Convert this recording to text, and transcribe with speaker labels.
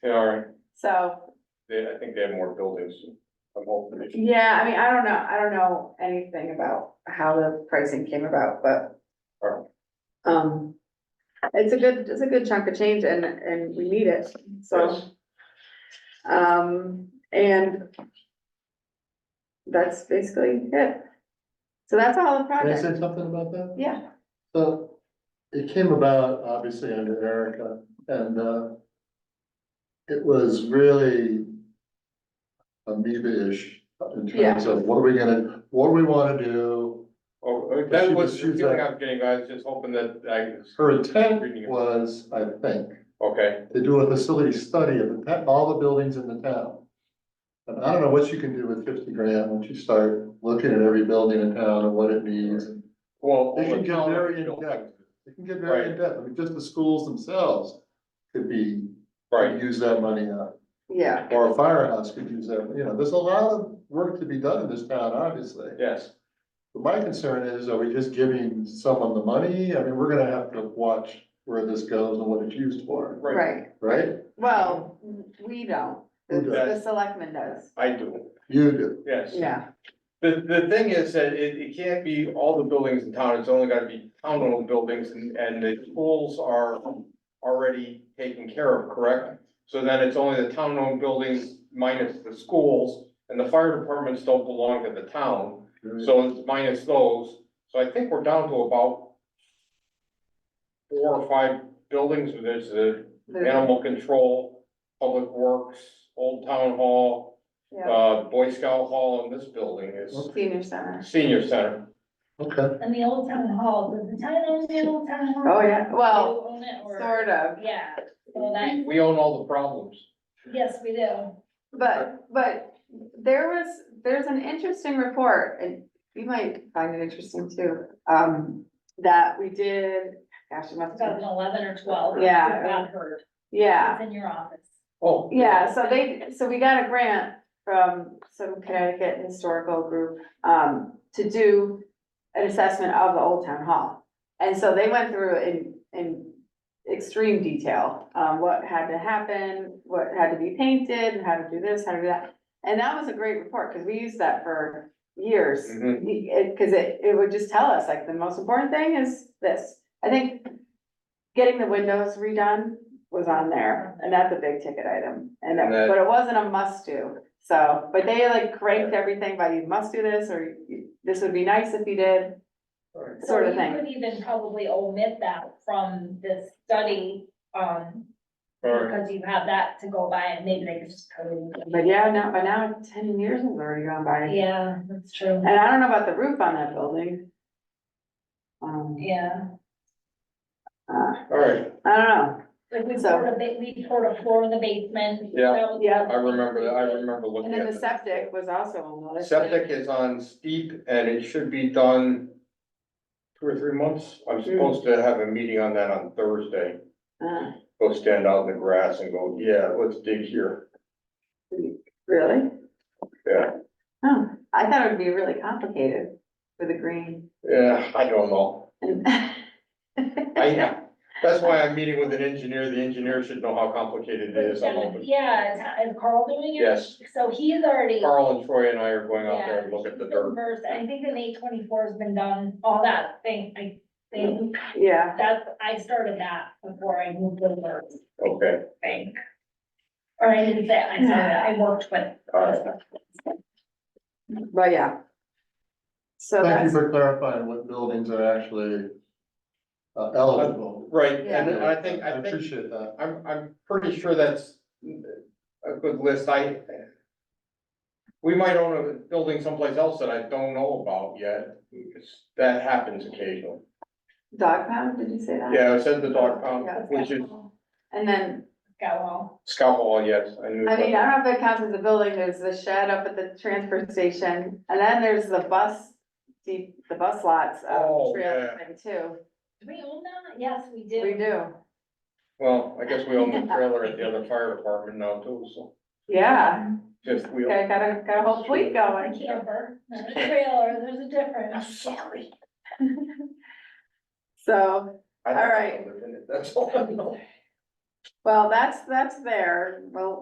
Speaker 1: They are,
Speaker 2: So,
Speaker 1: they, I think they have more buildings, I'm hoping. they should-
Speaker 2: yeah, I mean, I don't know, I don't know anything about how the pricing came about, but.
Speaker 1: Alright.
Speaker 2: Um, it's a good, it's a good chunk of change and, and we need it, so,
Speaker 1: Yes.
Speaker 2: um, and. That's basically it. So that's all the
Speaker 3: Can I say
Speaker 2: project,
Speaker 3: something about that?
Speaker 2: yeah,
Speaker 3: So it came about obviously under Erica and uh. It was really. Amoeba-ish in terms of what are we gonna, what do we wanna do?
Speaker 1: Oh, oh,
Speaker 3: But
Speaker 1: that
Speaker 3: she
Speaker 1: was
Speaker 3: just
Speaker 1: the
Speaker 3: used
Speaker 1: feeling
Speaker 3: that.
Speaker 1: I'm getting, I was just hoping that I,
Speaker 3: Her intent
Speaker 1: Reading it.
Speaker 3: was, I think,
Speaker 1: okay,
Speaker 3: to do a facility study of the town- all the buildings in the town. And I don't know what you can do with fifty grand once you start looking at every building in town and what it needs.
Speaker 1: well.
Speaker 3: They can get
Speaker 1: well,
Speaker 3: very in
Speaker 1: buildings.
Speaker 3: depth. It can get very
Speaker 1: Right.
Speaker 3: in depth, I mean, just the schools themselves could be
Speaker 1: Right,
Speaker 3: use that money on,
Speaker 2: yeah,
Speaker 3: or a firehouse could use that, you know, there's a lot of work to be done in this town, obviously.
Speaker 1: yes,
Speaker 3: But my concern is, are we just giving someone the money? I mean, we're gonna have to watch where this goes and what it's used for,
Speaker 1: right,
Speaker 2: right,
Speaker 3: right?
Speaker 2: well, we don't, the, the
Speaker 3: Who
Speaker 1: does?
Speaker 2: selectman does,
Speaker 1: I do,
Speaker 3: You do,
Speaker 1: yes.
Speaker 2: yeah,
Speaker 1: The, the thing is that it, it can't be all the buildings in town, it's only gotta be town-owned buildings, and, and the schools are already taken care of, correct? So then it's only the town-owned buildings minus the schools, and the fire departments don't belong to the town, so it's minus those. So I think we're down to about four or five buildings, there's the
Speaker 2: the-
Speaker 1: animal control, public works, old town hall,
Speaker 2: yeah,
Speaker 1: uh, Boy Scout Hall, and this building is
Speaker 2: senior center.
Speaker 1: Senior Center,
Speaker 3: okay,
Speaker 4: And the old town hall, does the town own the old town hall?
Speaker 2: Oh, yeah, well,
Speaker 4: You own it or-
Speaker 2: sort of,
Speaker 4: Yeah, so
Speaker 1: we,
Speaker 4: that,
Speaker 1: we own all the problems.
Speaker 4: yes, we do.
Speaker 2: But, but there was, there's an interesting report, and you might find it interesting too, um, that we did, gosh, it must
Speaker 4: About
Speaker 2: have
Speaker 4: an
Speaker 2: been,
Speaker 4: eleven or twelve.
Speaker 2: Yeah.
Speaker 4: We've got heard.
Speaker 2: yeah.
Speaker 4: It's in your office.
Speaker 1: Oh.
Speaker 2: Yeah, so they, so we got a grant from some Connecticut historical group, um, to do an assessment of the Old Town Hall. And so they went through in, in extreme detail, um, what had to happen, what had to be painted, and how to do this, how to do that. And that was a great report, because we used that for years,
Speaker 1: Mhm.
Speaker 2: because it, it would just tell us, like, the most important thing is this. I think getting the windows redone was on there, and that's a big ticket item,
Speaker 1: And
Speaker 2: and, it-
Speaker 1: that-
Speaker 2: but it wasn't a must do. So, but they like cranked everything by you must do this, or you- this would be nice if you did,
Speaker 1: Right.
Speaker 2: sort of
Speaker 4: So
Speaker 2: thing.
Speaker 4: You could even probably omit that from this study, um,
Speaker 1: Alright,
Speaker 4: because you have that to go by and maybe they could just code it.
Speaker 2: But yeah, now, by now, ten years has already gone by,
Speaker 4: Yeah, that's true.
Speaker 2: and I don't know about the roof on that building. Um,
Speaker 4: Yeah,
Speaker 2: uh,
Speaker 1: alright,
Speaker 2: I don't know,
Speaker 4: like we
Speaker 2: So-
Speaker 4: poured a bit, we poured a floor in the basement.
Speaker 1: Yeah.
Speaker 4: That was-
Speaker 2: Yeah.
Speaker 1: I remember, that. I remember looking
Speaker 2: and then
Speaker 1: at
Speaker 2: the
Speaker 1: that.
Speaker 2: septic was also another.
Speaker 1: Septic is on steep and it should be done two or three months. I'm supposed to have a meeting on that on Thursday.
Speaker 2: Uh,
Speaker 1: Go stand out in the grass and go, yeah, let's dig here.
Speaker 2: Really?
Speaker 1: Yeah.
Speaker 2: Oh, I thought it would be really complicated with the green
Speaker 1: Yeah, I don't know.
Speaker 2: and.
Speaker 1: I, that's why I'm meeting with an engineer. The engineer should know how complicated it is. I'm hoping.
Speaker 4: Yeah, is- is Carl doing it?
Speaker 1: Yes,
Speaker 4: So he's already.
Speaker 1: Carl and Troy and I are going out
Speaker 4: Yeah,
Speaker 1: there and look at the
Speaker 4: she's
Speaker 1: dirt.
Speaker 4: been versed. I think an eight twenty-four has been done, all that thing, I think,
Speaker 2: Yeah,
Speaker 4: that's, I started that before I moved over,
Speaker 1: Okay,
Speaker 4: I think. Or I didn't say, I started, that. I worked with.
Speaker 1: alright.
Speaker 2: but yeah. So
Speaker 3: thank you
Speaker 2: that's,
Speaker 3: for clarifying what buildings are actually. Uh, eligible.
Speaker 1: Right, and I think, I think
Speaker 3: Appreciate that,
Speaker 1: I'm, I'm pretty sure that's a good list, I. We might own a building someplace else that I don't know about yet, It's- that happens occasionally.
Speaker 2: dog pound, did you say that?
Speaker 1: Yeah, I said the dog pound,
Speaker 2: Yeah.
Speaker 1: which is
Speaker 2: And then,
Speaker 4: Got well,
Speaker 1: Scout Hall, yes, I knew.
Speaker 2: I mean, I don't know if it counts as a building, there's the shed up at the transfer station, and then there's the bus, the, the bus lots
Speaker 1: Oh,
Speaker 2: of trail
Speaker 1: yeah.
Speaker 2: thing too.
Speaker 4: do we own that? Yes, we
Speaker 2: We
Speaker 4: do.
Speaker 2: do,
Speaker 1: Well, I guess we own the trailer at the other fire department now too, so
Speaker 2: yeah,
Speaker 1: just we.
Speaker 2: got, got a, got a whole fleet
Speaker 4: A
Speaker 2: going.
Speaker 4: camper, not a trailer, there's a difference.
Speaker 1: sorry.
Speaker 2: So,
Speaker 1: I don't
Speaker 2: All right.
Speaker 1: live in it, That's all I know.
Speaker 2: Well, that's, that's there, well,